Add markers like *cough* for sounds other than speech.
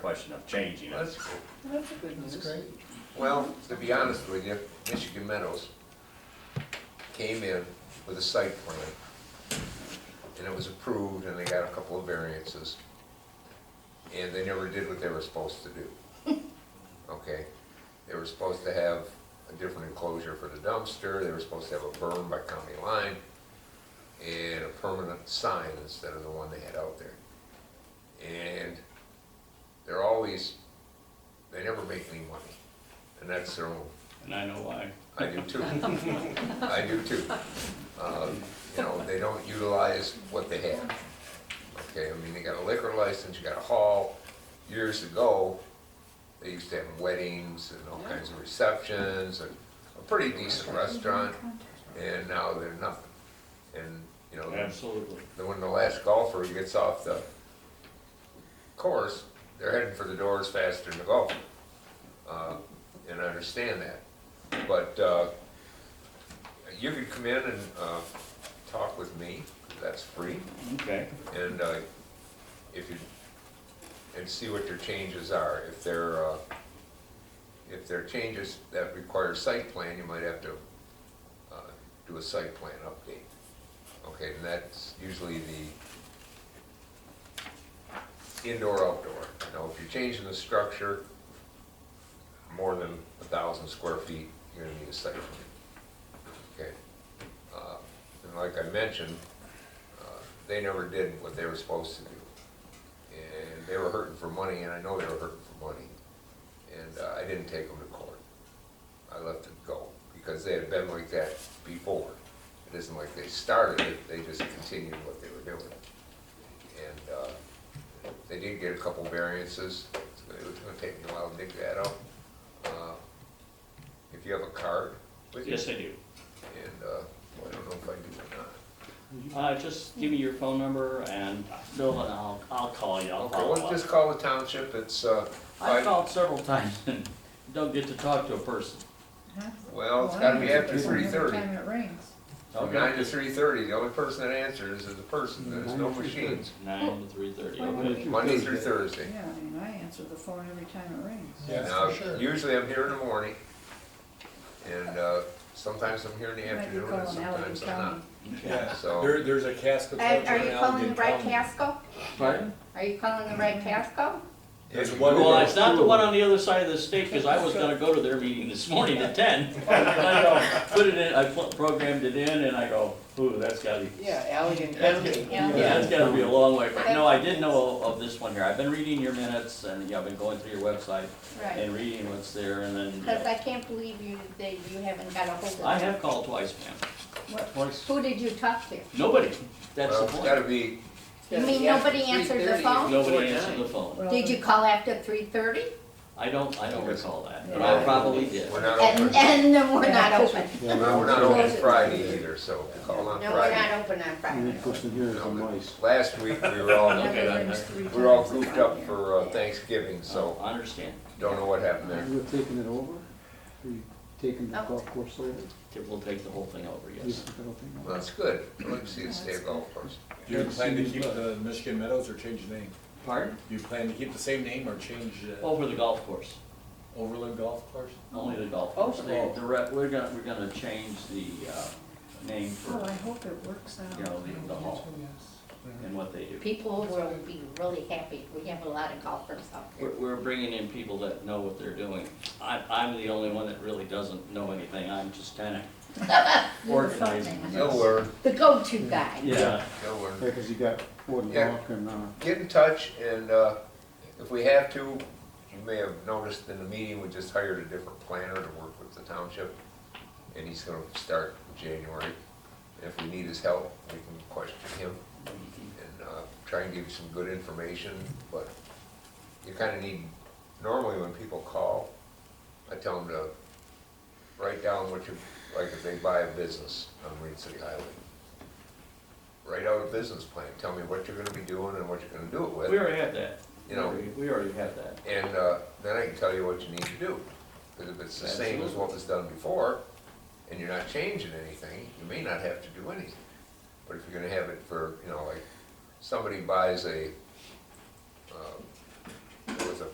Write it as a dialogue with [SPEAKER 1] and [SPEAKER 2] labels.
[SPEAKER 1] question of changing it.
[SPEAKER 2] That's cool.
[SPEAKER 3] That's a good
[SPEAKER 4] That's
[SPEAKER 3] news.
[SPEAKER 4] great.
[SPEAKER 2] Well, to be honest with you, Michigan Meadows came in with a site plan, and it was approved, and they got a couple of variances, and they never did what they were supposed to do. Okay? They were supposed to have a different enclosure for the dumpster, they were supposed to have a berm by county line, and a permanent sign instead of the one they had out there. And they're always, they never make any money, and that's their own
[SPEAKER 1] And I know why.
[SPEAKER 2] I do too. I do too. Uh, You know, they don't utilize what they have. Okay, I mean, they got a liquor license, you got a hall. Years ago, they used to have weddings and all kinds of receptions and a pretty decent restaurant, and now they're nothing. And, you know,
[SPEAKER 1] Absolutely.
[SPEAKER 2] then when the last golfer gets off the course, they're heading for the doors faster than the golfer. Uh, And I understand that. But uh, you could come in and uh, talk with me, 'cause that's free,
[SPEAKER 1] Okay.
[SPEAKER 2] and uh, if you, and see what your changes are. If they're, uh, if they're changes that require site plan, you might have to uh, do a site plan update. Okay, and that's usually the indoor-outdoor. Now, if you're changing the structure more than a thousand square feet, you're gonna need a site plan. Okay? Uh, And like I mentioned, uh, they never did what they were supposed to do. And they were hurting for money, and I know they were hurting for money. And uh, I didn't take them to court. I let them go, because they had been like that before. It isn't like they started it, they just continued what they were doing. And uh, they did get a couple variances, It's gonna- it's gonna take me a while to dig that out. Uh, If you have a card with you,
[SPEAKER 1] Yes, I do.
[SPEAKER 2] and, uh, well, I don't know if I do or not.
[SPEAKER 1] Uh, just give me your phone number and Bill and I'll, I'll call you. I'll
[SPEAKER 2] Okay,
[SPEAKER 1] follow
[SPEAKER 2] let's
[SPEAKER 1] up.
[SPEAKER 2] just call the township, it's, uh,
[SPEAKER 1] I've
[SPEAKER 2] I-
[SPEAKER 1] called several times and don't get to talk to a person.
[SPEAKER 2] well, it's gotta be after three
[SPEAKER 5] Every
[SPEAKER 2] thirty.
[SPEAKER 5] time it rains.
[SPEAKER 2] From nine to three thirty, the only person that answers is the person, there's no
[SPEAKER 4] Nine to
[SPEAKER 2] machines,
[SPEAKER 1] Nine to three thirty, okay.
[SPEAKER 2] Monday through Thursday.
[SPEAKER 5] Yeah, I mean, I answer the phone every time it rains.
[SPEAKER 4] Yeah,
[SPEAKER 2] Now,
[SPEAKER 4] for sure.
[SPEAKER 2] usually I'm here in the morning, and, uh, sometimes I'm here in the
[SPEAKER 5] You might be
[SPEAKER 2] afternoon, and
[SPEAKER 5] calling Allegan
[SPEAKER 2] sometimes I'm
[SPEAKER 5] County.
[SPEAKER 2] not.
[SPEAKER 4] Yeah,
[SPEAKER 2] So-
[SPEAKER 4] there, there's a cask of
[SPEAKER 6] And
[SPEAKER 4] culture
[SPEAKER 6] Are you
[SPEAKER 4] in
[SPEAKER 6] calling the
[SPEAKER 4] Allegan
[SPEAKER 6] right
[SPEAKER 4] County.
[SPEAKER 6] Casco?
[SPEAKER 1] Pardon?
[SPEAKER 6] Are you calling the right Casco?
[SPEAKER 4] There's
[SPEAKER 2] If you
[SPEAKER 4] one-
[SPEAKER 1] Well, it's not the one on the other side of the state, because I was gonna go to their meeting this morning at *laughs* ten. I go, Put it in, I pl- programmed it in and I go, ooh, that's gotta be,
[SPEAKER 3] Yeah, Allegan County.
[SPEAKER 6] Yeah.
[SPEAKER 1] that's gotta be a long way. But no, I did know of this one here. I've been reading your minutes and, yeah, I've been going through your website
[SPEAKER 6] Right.
[SPEAKER 1] and reading what's there and
[SPEAKER 6] Because
[SPEAKER 1] then,
[SPEAKER 6] I can't believe you, that you haven't got a hold of
[SPEAKER 1] I
[SPEAKER 6] them.
[SPEAKER 1] have called twice, ma'am.
[SPEAKER 6] What-
[SPEAKER 1] Twice.
[SPEAKER 6] Who did you talk to?
[SPEAKER 1] Nobody. That's
[SPEAKER 2] Well,
[SPEAKER 1] the
[SPEAKER 2] it's
[SPEAKER 1] point.
[SPEAKER 2] gotta be,
[SPEAKER 6] You mean nobody answered the phone?
[SPEAKER 1] Nobody answered the phone.
[SPEAKER 5] Well,
[SPEAKER 6] Did you call after three thirty?
[SPEAKER 1] I don't, I don't recall that, but I probably did.
[SPEAKER 2] we're not
[SPEAKER 6] And,
[SPEAKER 2] open,
[SPEAKER 6] and then we're not open.
[SPEAKER 2] No, we're not open Friday either, so if you call on
[SPEAKER 6] No, we're
[SPEAKER 2] Friday.
[SPEAKER 6] not open on Friday.
[SPEAKER 1] Mm-hmm.
[SPEAKER 2] No, Last week, we were all,
[SPEAKER 1] Okay,
[SPEAKER 5] *laughs*
[SPEAKER 1] that-
[SPEAKER 5] rains three
[SPEAKER 2] we were all
[SPEAKER 5] times a
[SPEAKER 2] grouped
[SPEAKER 5] month
[SPEAKER 2] up
[SPEAKER 5] here.
[SPEAKER 2] for uh, Thanksgiving, so
[SPEAKER 1] I understand.
[SPEAKER 2] don't know what happened there.
[SPEAKER 7] You were taking it over? Were you taking the golf course over?
[SPEAKER 1] We'll take the whole thing over,
[SPEAKER 7] You
[SPEAKER 1] yes.
[SPEAKER 7] took that whole thing over?
[SPEAKER 2] Well, that's good, I'd like to see the state golf course.
[SPEAKER 4] Do you plan to keep the Michigan Meadows or change the name?
[SPEAKER 1] Pardon?
[SPEAKER 4] Do you plan to keep the same name or change uh,
[SPEAKER 1] Over the golf course,
[SPEAKER 4] Overland Golf Course?
[SPEAKER 1] only the golf
[SPEAKER 3] Oh,
[SPEAKER 1] course. The,
[SPEAKER 3] oh.
[SPEAKER 1] the re we're gonna, we're gonna change the, uh, name
[SPEAKER 5] Oh, I
[SPEAKER 1] for,
[SPEAKER 5] hope it works out.
[SPEAKER 1] you know, the, the hall and what they do.
[SPEAKER 6] People will be really happy. We have a lot of golfers out
[SPEAKER 1] We're,
[SPEAKER 6] there.
[SPEAKER 1] we're bringing in people that know what they're doing. I, I'm the only one that really doesn't know anything. I'm just kinda
[SPEAKER 6] You're the phone
[SPEAKER 1] organizing.
[SPEAKER 6] man.
[SPEAKER 2] You'll learn,
[SPEAKER 6] The go-to guy.
[SPEAKER 1] Yeah,
[SPEAKER 2] you'll learn.
[SPEAKER 7] Yeah, 'cause you got Ford
[SPEAKER 2] Yeah.
[SPEAKER 7] Lock and, uh,
[SPEAKER 2] get in touch, and uh, if we have to, you may have noticed in the meeting, we just hired a different planner to work with the township, and he's gonna start in January. If we need his help, we can question him and uh, try and give you some good information, but you kinda need, normally when people call, I tell them to write down what you, like if they buy a business on Marine City Highway, write out a business plan, tell me what you're gonna be doing and what you're gonna do it with.
[SPEAKER 1] we already have that.
[SPEAKER 2] You know-
[SPEAKER 1] We- We already have that.
[SPEAKER 2] And uh, then I can tell you what you need to do. Because if it's the same as what was done before, and you're not changing anything, you may not have to do anything. But if you're gonna have it for, you know, like, somebody buys a, uh, there um, was a